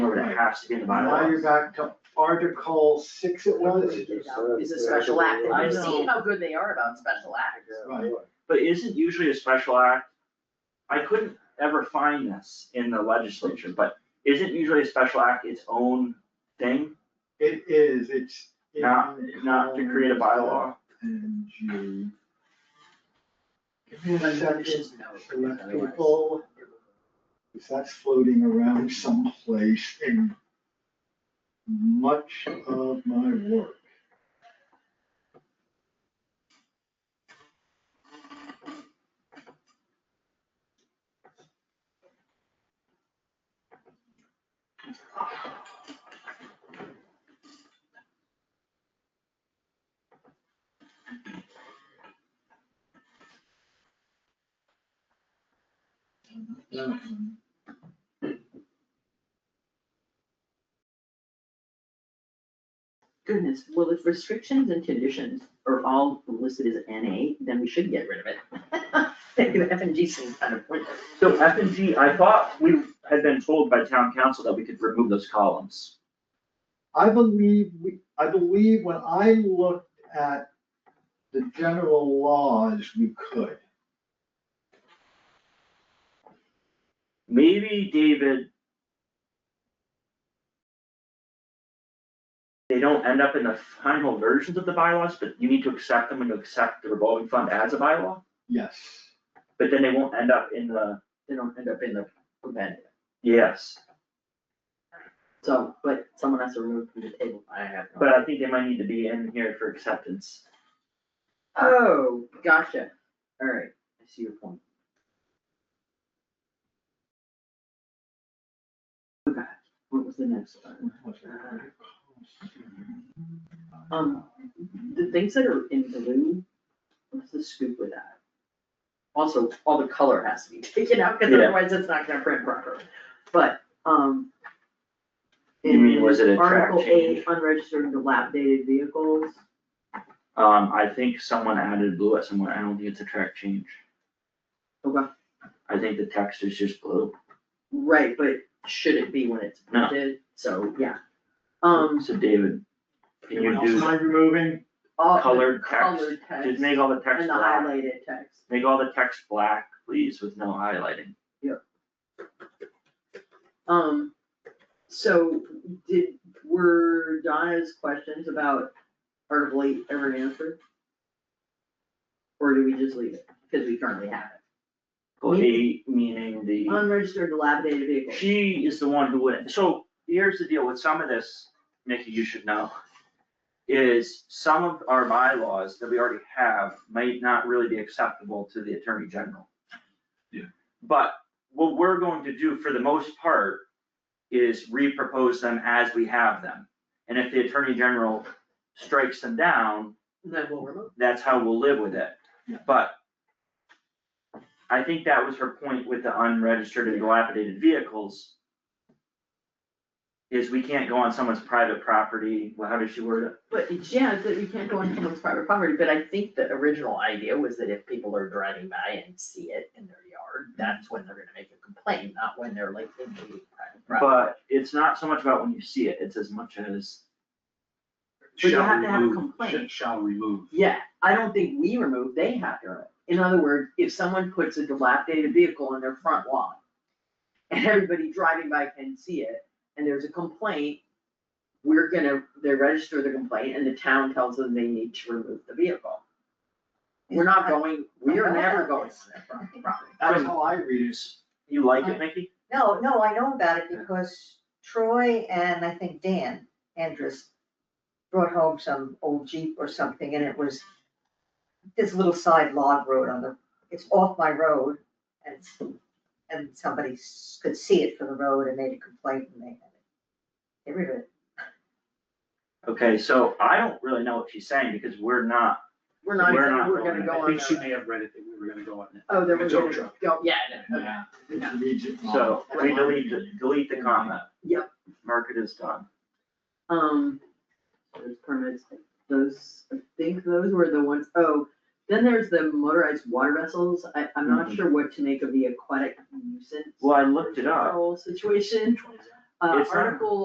has to be in the Now you're bylaws. back to Article six it was? Is a special act, I I've know. seen how good they are about special acts. Right. But isn't usually a special act, I couldn't ever find this in the legislature, but isn't usually a special act its own thing? It is, it's. in Not, not to create a bylaw? NG. Give me a But second, it's just no, to let people, because that's floating around someplace in much of my work. Goodness, well, if restrictions and conditions are all listed as NA, then we should get rid of it. Thinking F and G seems kind of pointless. So F and G, I thought we had been told by town council that we could remove those columns. I believe, we- I believe when I looked at the general laws, we could. Maybe David. They don't end up in the final versions of the bylaws, but you need to accept them and to accept the revolving fund as a bylaw. Yes, But then they won't end up in the, They don't end up in the event, yes, so, but someone has to remove from the table, I have. no- but I think they might need to be in here for acceptance. Oh, gotcha, alright, I see your point. Okay, what was the next one? Um, the things that are in blue, what's the scoop with that? Also, all the color has to be taken out, cause Yeah. otherwise it's not gonna print properly, but, um. You mean, was it a in track Article change? eight, unregistered and dilapidated vehicles, Um, I think someone added blue at somewhere, I don't think it's a track change, okay, I think the text is just blue. right, but should it be when it's No. printed, so, yeah. Um, So David, can you Anyone else do mind removing? all the colored text, colored text just make all the text and the black. highlighted text, Make all the text black, please, with no highlighting. um, so did, were Donna's questions about Article eight ever answered? Or do we just leave it, because we currently have Well, Me- eight, meaning it, the, unregistered dilapidated vehicles, she is the one who would, so here's the deal with some of this, Nikki, you should know. Is some of our bylaws that we already have might not really be acceptable to the attorney general. Yeah. But what we're going to do for the most part is repropose them as we have them. And if the attorney general strikes them down, and then we'll remove. that's how we'll live with it. Yeah. But I think that was her point with the unregistered and dilapidated vehicles. Is we can't go on someone's private property, well, how does she word But it's- yeah, it's that we can't go on someone's private property, but I think the original idea was that if people are driving by and see it in their yard, that's when they're gonna make a complaint, not when they're like in the private it? property. But it's not so much about when you see it, it's as much as, But you shall have to have a remove- complaint. sh- Shall remove. Yeah, I don't think we remove, they have to remove. In other words, if someone puts a dilapidated vehicle in their front lawn and everybody driving by can see it and there's a complaint, we're gonna, they register the complaint and the town tells them they need to remove the vehicle. We're not going, we are never going on their front property. That's how I read it. you like it, Mickey? No, no, I know about it because Troy and I think Dan Andrus brought home some old Jeep or something and it was this little side log road on the, it's off my road and it's, and somebody s- could see it from the road and made a complaint and they had it. Get rid of it. Okay, so I don't really know what she's saying because we're not, We're not, We're not we're going gonna on. go I on think she their, may have read it, that we were gonna go on it. oh, they're It's all gonna true. go, yeah, no, no, Yeah. It reads it wrong. so we delete, the- delete the comment. Yep. Mark it as done. Um, those permits, those, I think those were the ones, oh, then there's the motorized water vessels, I, I'm not sure what to make of the aquatic nuisance. Well, Mhm. I looked it up. Whole situation, uh, It's not- article